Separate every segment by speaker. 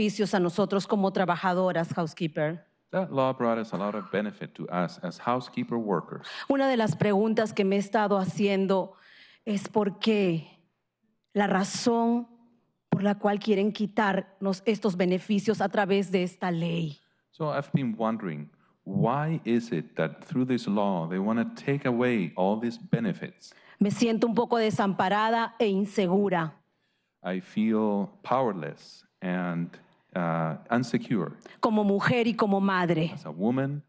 Speaker 1: beneficios a nosotros como trabajadoras, housekeeper.
Speaker 2: That law brought us a lot of benefit to us as housekeeper workers.
Speaker 1: Una de las preguntas que me he estado haciendo es por qué la razón por la cual quieren quitarnos estos beneficios a través de esta ley.
Speaker 2: So I've been wondering why is it that through this law they want to take away all these benefits?
Speaker 1: Me siento un poco desamparada e insegura,
Speaker 2: I feel powerless and uh, insecure
Speaker 1: como mujer y como madre,
Speaker 2: as a woman,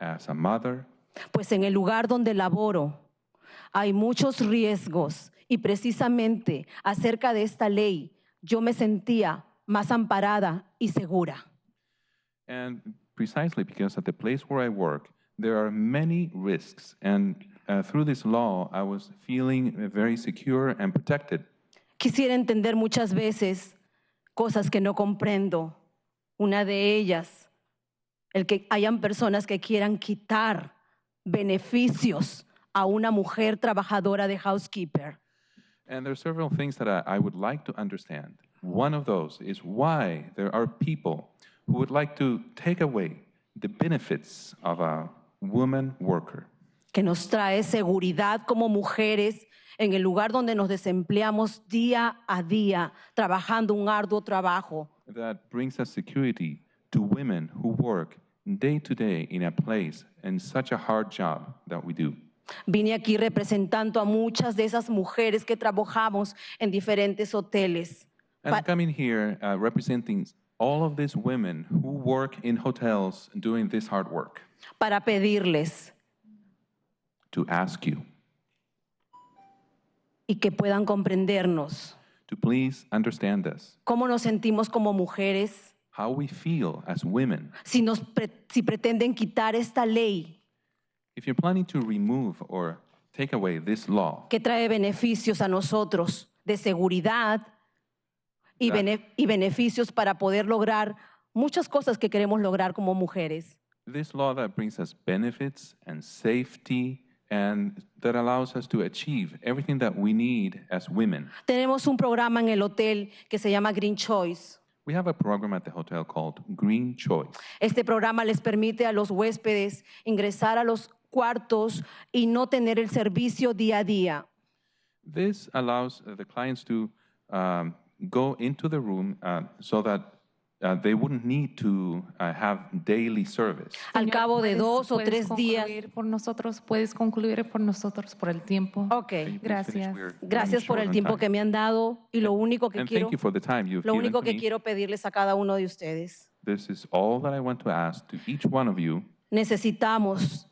Speaker 2: as a mother.
Speaker 1: pues en el lugar donde laboro hay muchos riesgos y precisamente acerca de esta ley yo me sentía más amparada y segura.
Speaker 2: And precisely because at the place where I work, there are many risks. And uh, through this law, I was feeling very secure and protected.
Speaker 1: Quisiera entender muchas veces cosas que no comprendo. Una de ellas, el que hayan personas que quieran quitar beneficios a una mujer trabajadora de housekeeper.
Speaker 2: And there are several things that I, I would like to understand. One of those is why there are people who would like to take away the benefits of a woman worker.
Speaker 1: que nos trae seguridad como mujeres en el lugar donde nos desempleamos día a día, trabajando un arduo trabajo.
Speaker 2: that brings us security to women who work day to day in a place and such a hard job that we do.
Speaker 1: Vine aquí representando a muchas de esas mujeres que trabajamos en diferentes hoteles.
Speaker 2: And I'm coming here uh, representing all of these women who work in hotels doing this hard work
Speaker 1: para pedirles
Speaker 2: to ask you
Speaker 1: y que puedan comprendernos
Speaker 2: to please understand us,
Speaker 1: cómo nos sentimos como mujeres,
Speaker 2: how we feel as women.
Speaker 1: si, nos pre- si pretenden quitar esta ley
Speaker 2: If you're planning to remove or take away this law
Speaker 1: que trae beneficios a nosotros de seguridad y,
Speaker 2: Claro.
Speaker 1: bene- y beneficios para poder lograr muchas cosas que queremos lograr como mujeres.
Speaker 2: This law that brings us benefits and safety and that allows us to achieve everything that we need as women.
Speaker 1: Tenemos un programa en el hotel que se llama Green Choice.
Speaker 2: We have a program at the hotel called Green Choice.
Speaker 1: Este programa les permite a los huéspedes ingresar a los cuartos y no tener el servicio día a día.
Speaker 2: This allows uh, the clients to um, go into the room uh, so that uh, they wouldn't need to uh, have daily service.
Speaker 1: Al
Speaker 3: Señor,
Speaker 1: cabo de
Speaker 3: puedes-
Speaker 1: dos o
Speaker 3: puedes
Speaker 1: tres días.
Speaker 3: concluir Por nosotros, puedes concluir por nosotros por el tiempo.
Speaker 1: Ok.
Speaker 2: Can you please finish?
Speaker 3: gracias.
Speaker 2: We're running
Speaker 1: Gracias por
Speaker 2: short
Speaker 1: el
Speaker 2: on
Speaker 1: tiempo
Speaker 2: time.
Speaker 1: que me han dado y lo único que
Speaker 2: And
Speaker 1: quiero
Speaker 2: thank you for the time you've
Speaker 1: lo
Speaker 2: given
Speaker 1: único
Speaker 2: to
Speaker 1: que
Speaker 2: me.
Speaker 1: quiero pedirles a cada uno de ustedes
Speaker 2: This is all that I want to ask to each one of you.
Speaker 1: Necesitamos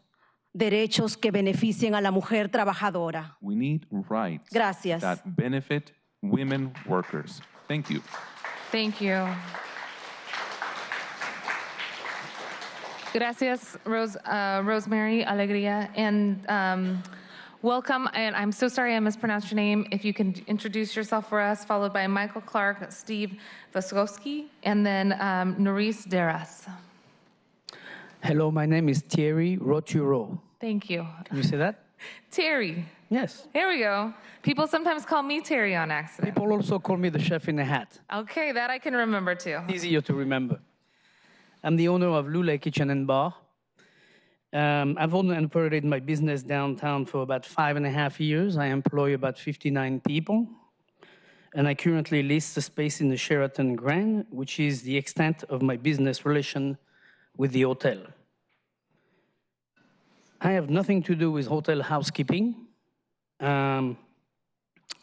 Speaker 1: derechos que beneficien a la mujer trabajadora.
Speaker 2: We need rights
Speaker 1: Gracias.
Speaker 2: that benefit women workers. Thank you.
Speaker 3: Thank you. Gracias, Rose, uh, Rosemary Alegría, and um, welcome. And I'm so sorry I mispronounced your name. If you can introduce yourself for us, followed by Michael Clark, Steve Vaskowski, and then um, Norris Deras.
Speaker 4: Hello, my name is Thierry Roturo.
Speaker 3: Thank you,
Speaker 4: Can you say that?
Speaker 3: Terry.
Speaker 4: Yes.
Speaker 3: Here we go. People sometimes call me Terry on accident.
Speaker 4: People also call me the chef in a hat.
Speaker 3: Okay, that I can remember too.
Speaker 4: Easier to remember. I'm the owner of Lula Kitchen and Bar. Um, I've owned and operated my business downtown for about five and a half years. I employ about 59 people. And I currently lease the space in the Sheraton Grand, which is the extent of my business relation with the hotel. I have nothing to do with hotel housekeeping. Um,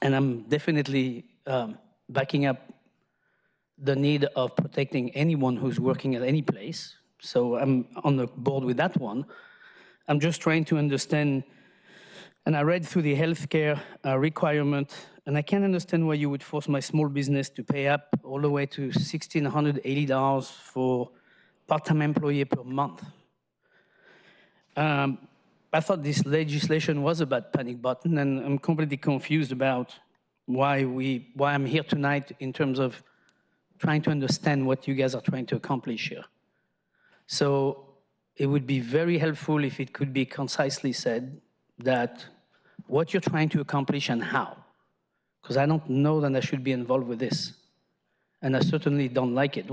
Speaker 4: and I'm definitely um, backing up the need of protecting anyone who's working at any place. So I'm on the board with that one. I'm just trying to understand, and I read through the healthcare uh, requirement, and I can't understand why you would force my small business to pay up all the way to $1,680 for part-time employee per month. Um, I thought this legislation was about panic button, and I'm completely confused about why we, why I'm here tonight in terms of trying to understand what you guys are trying to accomplish here. So it would be very helpful if it could be concisely said that what you're trying to accomplish and how. Because I don't know that I should be involved with this. And I certainly don't like it.